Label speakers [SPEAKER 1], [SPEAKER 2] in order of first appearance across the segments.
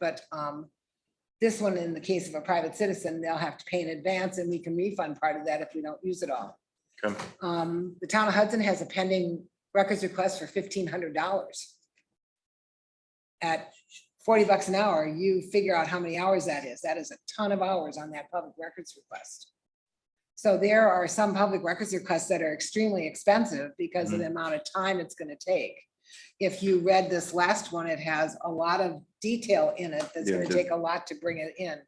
[SPEAKER 1] But um, this one, in the case of a private citizen, they'll have to pay in advance and we can refund part of that if we don't use it all.
[SPEAKER 2] Okay.
[SPEAKER 1] Um, the town of Hudson has a pending records request for fifteen hundred dollars. At forty bucks an hour, you figure out how many hours that is. That is a ton of hours on that public records request. So there are some public records requests that are extremely expensive because of the amount of time it's gonna take. If you read this last one, it has a lot of detail in it that's
[SPEAKER 2] Yeah, it
[SPEAKER 1] gonna
[SPEAKER 2] does.
[SPEAKER 1] take a lot to bring it in.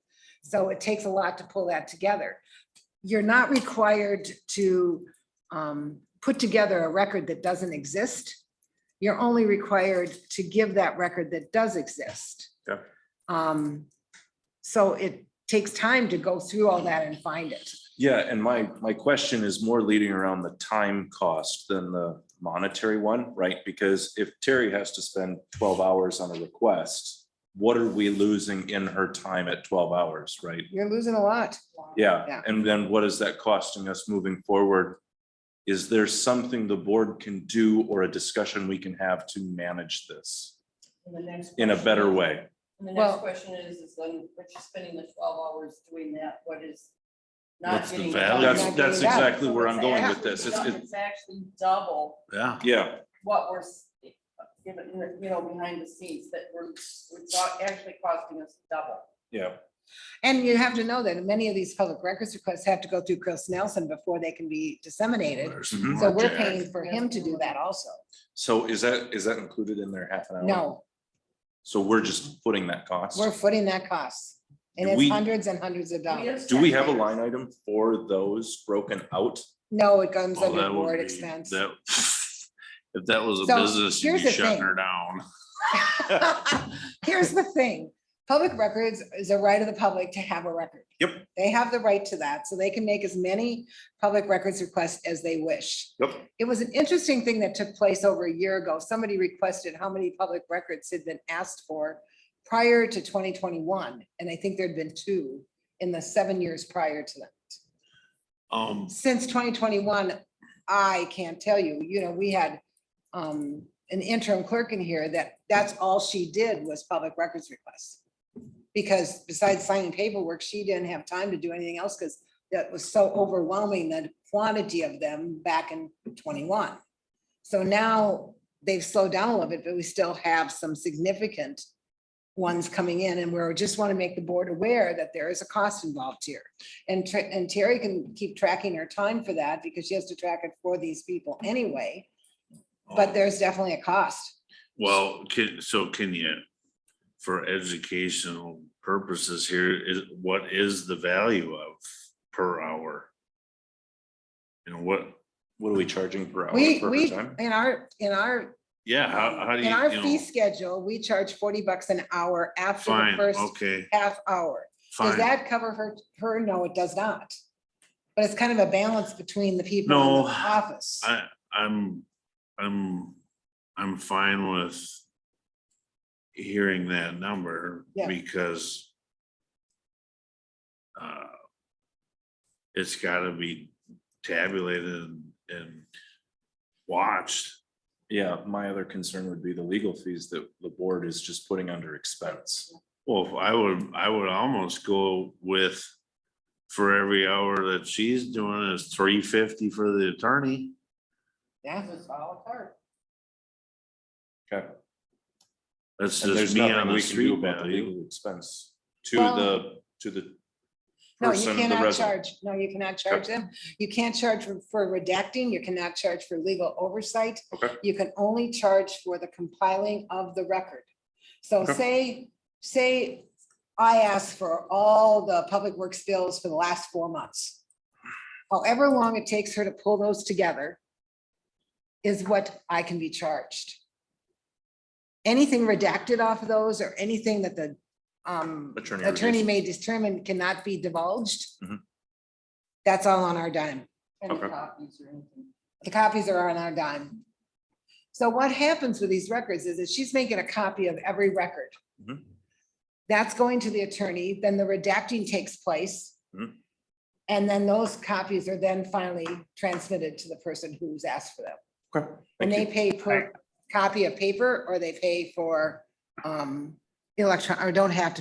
[SPEAKER 1] So it takes a lot to pull that together. You're not required to um, put together a record that doesn't exist. You're only required to give that record that does exist.
[SPEAKER 2] Yeah.
[SPEAKER 1] Um, so it takes time to go through all that and find it.
[SPEAKER 2] Yeah, and my, my question is more leading around the time cost than the monetary one, right? Because if Terry has to spend twelve hours on a request, what are we losing in her time at twelve hours, right?
[SPEAKER 1] You're losing a lot.
[SPEAKER 2] Yeah,
[SPEAKER 1] Yeah.
[SPEAKER 2] and then what is that costing us moving forward? Is there something the board can do or a discussion we can have to manage this
[SPEAKER 3] And the next.
[SPEAKER 2] in a better
[SPEAKER 3] question-
[SPEAKER 2] way?
[SPEAKER 3] And the
[SPEAKER 1] Well-
[SPEAKER 3] next question is, is then, but you're spending the twelve hours doing that, what is? not
[SPEAKER 4] What's the
[SPEAKER 3] getting
[SPEAKER 4] value?
[SPEAKER 3] done?
[SPEAKER 2] That's,
[SPEAKER 1] Not
[SPEAKER 2] that's
[SPEAKER 1] getting done.
[SPEAKER 2] exactly where I'm going with this. It's,
[SPEAKER 3] It's
[SPEAKER 2] it-
[SPEAKER 3] it's actually double
[SPEAKER 4] Yeah,
[SPEAKER 2] yeah,
[SPEAKER 3] what we're, s- you know, you know, behind the scenes, that we're, it's not actually costing us double.
[SPEAKER 2] yeah.
[SPEAKER 1] And you have to know that many of these public records requests have to go through Chris Nelson before they can be disseminated.
[SPEAKER 4] there's some
[SPEAKER 1] So
[SPEAKER 4] more,
[SPEAKER 1] we're
[SPEAKER 4] Jack.
[SPEAKER 1] paying for him to do that also.
[SPEAKER 2] So is that, is that included in their half an hour?
[SPEAKER 1] No,
[SPEAKER 2] So we're just putting that cost.
[SPEAKER 1] we're footing that cost. And
[SPEAKER 2] Do
[SPEAKER 1] it's
[SPEAKER 2] we-
[SPEAKER 1] hundreds and hundreds of
[SPEAKER 3] We
[SPEAKER 1] dollars.
[SPEAKER 2] Do we have a line item for those broken out?
[SPEAKER 1] No, it comes
[SPEAKER 4] Oh,
[SPEAKER 1] under
[SPEAKER 4] that would
[SPEAKER 1] board
[SPEAKER 4] be-
[SPEAKER 1] expense.
[SPEAKER 4] that- If that was a
[SPEAKER 1] So,
[SPEAKER 4] business, you'd
[SPEAKER 1] here's
[SPEAKER 4] be
[SPEAKER 1] the
[SPEAKER 4] shutting
[SPEAKER 1] thing.
[SPEAKER 4] her down.
[SPEAKER 1] Here's the thing, public records is a right of the public to have a record.
[SPEAKER 2] Yep.
[SPEAKER 1] They have the right to that, so they can make as many public records requests as they wish.
[SPEAKER 2] Yep.
[SPEAKER 1] It was an interesting thing that took place over a year ago. Somebody requested how many public records had been asked for prior to twenty twenty-one, and I think there'd been two in the seven years prior to that
[SPEAKER 4] Um,
[SPEAKER 1] since twenty twenty-one, I can't tell you, you know, we had um, an interim clerk in here that, that's all she did was public records requests. Because besides signing paperwork, she didn't have time to do anything else because that was so overwhelming, the quantity of them back in twenty-one. So now they've slowed down a little bit, but we still have some significant ones coming in and we're, just want to make the board aware that there is a cost involved here. And Tr- and Terry can keep tracking her time for that because she has to track it for these people anyway,
[SPEAKER 4] Oh.
[SPEAKER 1] but there's definitely a cost.
[SPEAKER 4] well, can, so can you, for educational purposes here, is, what is the value of per hour? And what,
[SPEAKER 2] What are we charging
[SPEAKER 4] Oh,
[SPEAKER 2] per hour
[SPEAKER 1] We,
[SPEAKER 2] per
[SPEAKER 1] we,
[SPEAKER 2] time?
[SPEAKER 1] in our, in our,
[SPEAKER 4] yeah, how, how do
[SPEAKER 1] in our
[SPEAKER 4] you,
[SPEAKER 1] fee
[SPEAKER 4] you know,
[SPEAKER 1] schedule, we charge forty bucks an hour after the
[SPEAKER 4] fine,
[SPEAKER 1] first
[SPEAKER 4] okay,
[SPEAKER 1] half hour. Does
[SPEAKER 4] fine.
[SPEAKER 1] that cover her, her? No, it does not. But it's kind of a balance between the people in
[SPEAKER 4] No,
[SPEAKER 1] the office.
[SPEAKER 4] I, I'm, I'm, I'm fine with hearing that number
[SPEAKER 1] Yeah.
[SPEAKER 4] because uh, it's gotta be tabulated and watched.
[SPEAKER 2] Yeah, my other concern would be the legal fees that the board is just putting under expense.
[SPEAKER 4] Well, if I would, I would almost go with for every hour that she's doing is three fifty for the attorney.
[SPEAKER 1] Yeah,
[SPEAKER 3] It's a la carte.
[SPEAKER 2] Okay.
[SPEAKER 4] That's
[SPEAKER 2] And there's
[SPEAKER 4] just me on
[SPEAKER 2] nothing
[SPEAKER 4] the
[SPEAKER 2] we can do
[SPEAKER 4] street
[SPEAKER 2] about the
[SPEAKER 4] value.
[SPEAKER 2] legal expense to
[SPEAKER 1] Well-
[SPEAKER 2] the, to the
[SPEAKER 1] no, you
[SPEAKER 2] person, the
[SPEAKER 1] cannot
[SPEAKER 2] resident.
[SPEAKER 1] charge, no, you cannot charge them. You can't charge for- for redacting, you cannot charge for legal oversight.
[SPEAKER 2] Okay.
[SPEAKER 1] You can only charge for the compiling of the record. So
[SPEAKER 2] Okay.
[SPEAKER 1] say, say I asked for all the public works bills for the last four months. However long it takes her to pull those together is what I can be charged. Anything redacted off of those or anything that the um,
[SPEAKER 2] Attorney
[SPEAKER 1] attorney
[SPEAKER 2] reviews.
[SPEAKER 1] may determine cannot be divulged.
[SPEAKER 2] Mhm.
[SPEAKER 1] That's all on our dime.
[SPEAKER 3] Any
[SPEAKER 2] Okay.
[SPEAKER 3] copies or anything.
[SPEAKER 1] The copies are on our dime. So what happens with these records is that she's making a copy of every record.
[SPEAKER 2] Mhm.
[SPEAKER 1] That's going to the attorney, then the redacting takes place.
[SPEAKER 2] Mhm.
[SPEAKER 1] And then those copies are then finally transmitted to the person who's asked for them.
[SPEAKER 2] Okay,
[SPEAKER 1] And
[SPEAKER 2] thank
[SPEAKER 1] they
[SPEAKER 2] you.
[SPEAKER 1] pay per copy of paper or they pay for um electron, or don't have to